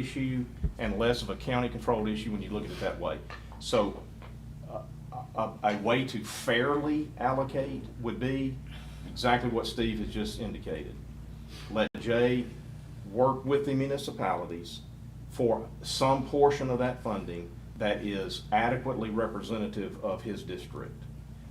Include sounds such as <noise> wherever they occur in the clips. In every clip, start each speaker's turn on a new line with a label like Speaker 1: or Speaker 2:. Speaker 1: issue and less of a county-controlled issue when you look at it that way. So uh, a, a way to fairly allocate would be exactly what Steve has just indicated. Let Jay work with the municipalities for some portion of that funding that is adequately representative of his district.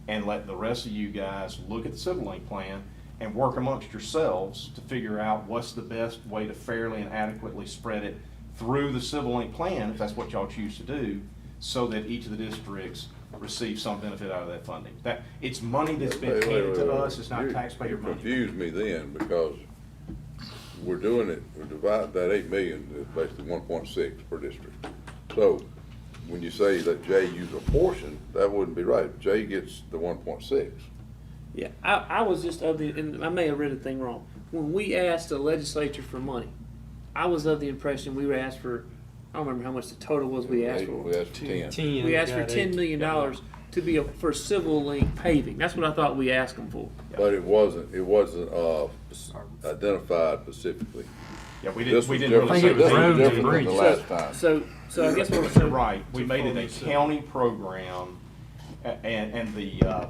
Speaker 1: And let the rest of you guys look at the Civil Link plan and work amongst yourselves to figure out what's the best way to fairly and adequately spread it through the Civil Link plan, if that's what y'all choose to do, so that each of the districts receives some benefit out of that funding. That, it's money that's been
Speaker 2: Wait, wait,
Speaker 1: handed to
Speaker 2: wait, wait.
Speaker 1: us, it's not
Speaker 2: You-
Speaker 1: taxpayer money.
Speaker 2: You confused me then, because we're doing it, we're dividing that eight million, is basically one point six per district. So, when you say that Jay use a portion, that wouldn't be right, Jay gets the one point six.
Speaker 3: Yeah, I, I was just of the, and I may have read the thing wrong. When we asked the legislature for money, I was of the impression we were asked for, I don't remember how much the total was we asked for.
Speaker 2: We asked for ten.
Speaker 3: We asked for ten million dollars to be a, for civil link paving. That's what I thought we asked them for.
Speaker 2: But it wasn't, it wasn't, uh, identified specifically.
Speaker 1: Yeah, we
Speaker 2: This
Speaker 1: didn't, we
Speaker 2: was
Speaker 1: didn't really say.
Speaker 2: different, this was
Speaker 4: it was roads and
Speaker 2: different than the last
Speaker 4: bridges.
Speaker 2: time.
Speaker 3: So, so I guess what I'm
Speaker 1: You're
Speaker 3: saying.
Speaker 1: right, we made it a county program, a- and, and the, uh,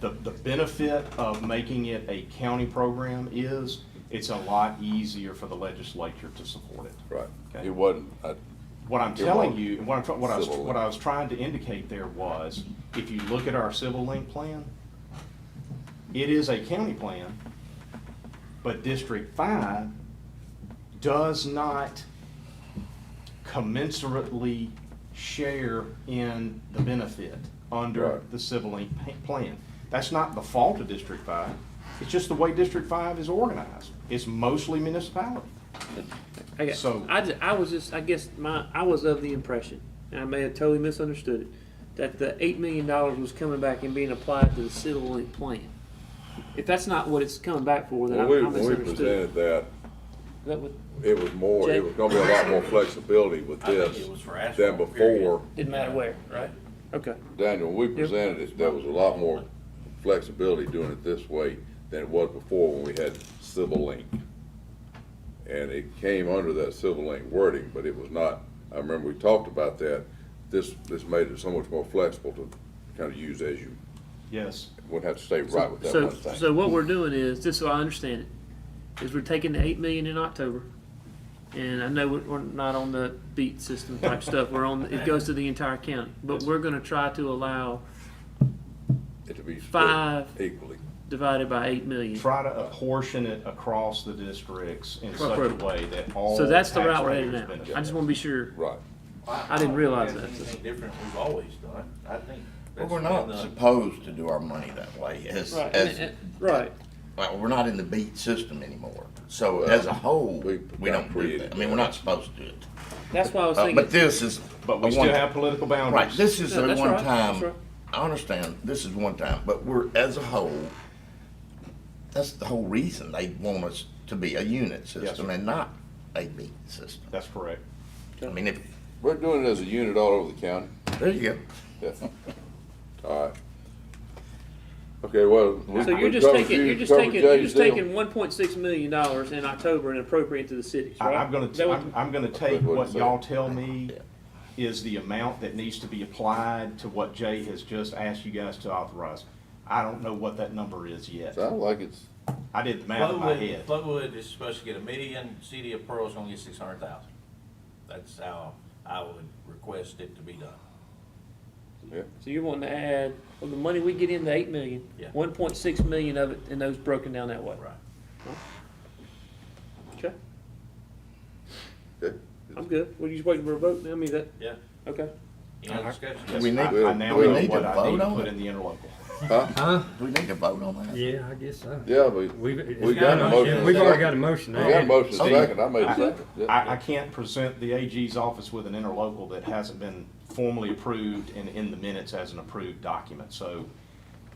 Speaker 1: the, the benefit of making it a county program is, it's a lot easier for the legislature to support it.
Speaker 2: Right,
Speaker 1: Okay.
Speaker 2: it wasn't, I,
Speaker 1: What I'm
Speaker 2: It
Speaker 1: telling
Speaker 2: won't.
Speaker 1: you, and what I'm, tr- what I was,
Speaker 2: Civil
Speaker 1: what I was trying to indicate there was, if you look at our civil link plan, it is a county plan, but District Five does not commensurately share in the benefit under
Speaker 2: Right.
Speaker 1: the civil link pa- plan. That's not the fault of District Five, it's just the way District Five is organized. It's mostly municipality.
Speaker 3: I got,
Speaker 1: So-
Speaker 3: I, ju- I was just, I guess my, I was of the impression, and I may have totally misunderstood it, that the eight million dollars was coming back and being applied to the civil link plan. If that's not what it's coming back for, then
Speaker 2: when
Speaker 3: I,
Speaker 2: we,
Speaker 3: I
Speaker 2: when we presented
Speaker 3: misunderstood.
Speaker 2: that,
Speaker 3: That was-
Speaker 2: it was more,
Speaker 3: Jay?
Speaker 2: it was gonna be a lot more flexibility with
Speaker 5: I think
Speaker 2: this
Speaker 5: it was for
Speaker 2: than
Speaker 5: asphalt,
Speaker 2: before.
Speaker 5: period.
Speaker 3: Didn't matter where,
Speaker 5: Right.
Speaker 3: okay.
Speaker 2: Daniel, when we presented it, there was a lot more flexibility doing it this way than it was before when we had civil link. And it came under that civil link wording, but it was not, I remember we talked about that. This, this made it so much more flexible to kind of use as you,
Speaker 1: Yes.
Speaker 2: wouldn't have to stay right with that
Speaker 3: So,
Speaker 2: one thing.
Speaker 3: so what we're doing is, just so I understand it, is we're taking the eight million in October, and I know we're, we're not on the beat system type stuff, we're on, it goes to the entire county, but we're gonna try to allow
Speaker 2: It to be split
Speaker 3: five-
Speaker 2: equally.
Speaker 3: divided by eight million.
Speaker 1: try to apportion it across the districts in such a
Speaker 3: Appropriate.
Speaker 1: way that all.
Speaker 3: So that's the route we're
Speaker 1: taxpayers
Speaker 3: headed now.
Speaker 1: benefit.
Speaker 3: I just wanna be sure.
Speaker 2: Right.
Speaker 3: I didn't realize
Speaker 5: don't think
Speaker 3: that.
Speaker 5: that's Anything different we've always done, I think.
Speaker 6: Well,
Speaker 5: that's
Speaker 6: we're
Speaker 5: been
Speaker 6: not
Speaker 5: the-
Speaker 6: supposed to do our money that way, as,
Speaker 3: Right,
Speaker 6: as,
Speaker 3: right.
Speaker 6: like, we're not in the beat system anymore. So as a whole,
Speaker 2: we-
Speaker 6: we don't do that, I mean, we're not supposed to do it.
Speaker 3: That's why I was
Speaker 6: Uh, But
Speaker 3: thinking,
Speaker 6: this is.
Speaker 1: But we
Speaker 6: a
Speaker 1: still
Speaker 6: one-
Speaker 1: have political
Speaker 6: Right,
Speaker 1: boundaries.
Speaker 6: this is
Speaker 3: No,
Speaker 6: a
Speaker 3: that's right, that's
Speaker 6: one-time,
Speaker 3: right.
Speaker 6: I understand, this is one time, but we're, as a whole, that's the whole reason they want us to be a unit system
Speaker 1: sir.
Speaker 6: and not a beat system.
Speaker 1: That's correct.
Speaker 6: I mean, if,
Speaker 2: We're doing it as a unit all over the
Speaker 3: <laughs>
Speaker 2: county.
Speaker 6: there you go.
Speaker 2: Yeah. All right. Okay, well. we-
Speaker 3: so you're
Speaker 2: we
Speaker 3: just
Speaker 2: covered
Speaker 3: taking,
Speaker 2: you,
Speaker 3: you're just
Speaker 2: covered
Speaker 3: taking, you're
Speaker 2: Jay's
Speaker 3: just
Speaker 2: deal.
Speaker 3: taking one point six million dollars in October and appropriating to the cities,
Speaker 1: I,
Speaker 3: right?
Speaker 1: I'm gonna,
Speaker 3: Is that what-
Speaker 1: I'm, I'm gonna take
Speaker 2: That's what it
Speaker 1: what
Speaker 2: said.
Speaker 1: y'all tell me is the amount that needs to be applied to what Jay has just asked you guys to authorize. I don't know what that number is yet.
Speaker 2: Sounds like it's,
Speaker 1: I did the math in my
Speaker 5: Flowood,
Speaker 1: head.
Speaker 5: Flowood is supposed to get a million, City of Pearl's gonna get six hundred thousand. That's how I would request it to be done.
Speaker 2: yeah.
Speaker 3: So you're wanting to add, of the money we get in, the eight million,
Speaker 5: Yeah.
Speaker 3: one point six million of it, and those broken down that way.
Speaker 5: Right.
Speaker 3: Okay,
Speaker 2: Okay.
Speaker 3: I'm good. We're just waiting for a vote, I mean, that,
Speaker 5: Yeah.
Speaker 3: okay.
Speaker 5: Any other discussion?
Speaker 1: Yes,
Speaker 6: We need-
Speaker 1: I- I now
Speaker 2: Uh-huh. we
Speaker 1: know
Speaker 6: need to
Speaker 1: what I need
Speaker 6: vote
Speaker 1: to
Speaker 6: on
Speaker 1: put
Speaker 6: it.
Speaker 1: in the interlocal.
Speaker 2: Huh?
Speaker 4: Huh?
Speaker 6: Do we need to vote on that?
Speaker 4: Yeah, I guess so.
Speaker 2: Yeah, we, we
Speaker 4: We've,
Speaker 2: We got a motion.
Speaker 4: We've already got a motion.
Speaker 2: got a motion
Speaker 6: Oh,
Speaker 2: second, I made a
Speaker 1: I,
Speaker 2: second. Yeah.
Speaker 1: I I can't present the AG's office with an interlocal that hasn't been formally approved and in the minutes as an approved document, so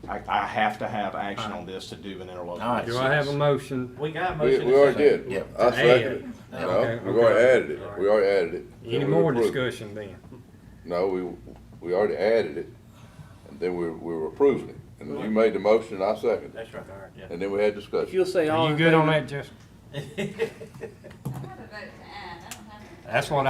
Speaker 1: I, I have to have action on this to do an
Speaker 6: All
Speaker 1: interlocal.
Speaker 6: right.
Speaker 4: Do I have a motion?
Speaker 5: We got a
Speaker 2: We, we
Speaker 5: motion. and
Speaker 2: already
Speaker 5: second.
Speaker 2: did.
Speaker 6: Yeah.
Speaker 2: I
Speaker 4: To
Speaker 2: seconded it.
Speaker 4: add.
Speaker 2: No,
Speaker 4: Okay,
Speaker 2: we already
Speaker 4: okay.
Speaker 2: added it, we already added it.
Speaker 4: Any
Speaker 2: We
Speaker 4: more
Speaker 2: approved it.
Speaker 4: discussion then?
Speaker 2: No, we, we already added it, and then we, we were approving it. And you made the motion, I seconded it,
Speaker 5: That's right, yeah.
Speaker 2: and then we had
Speaker 3: If
Speaker 2: discussion.
Speaker 3: you'll say all
Speaker 4: Are you
Speaker 3: in
Speaker 4: good on
Speaker 3: favor-
Speaker 4: that, Justin?
Speaker 7: I had a vote to add, I don't have
Speaker 4: That's what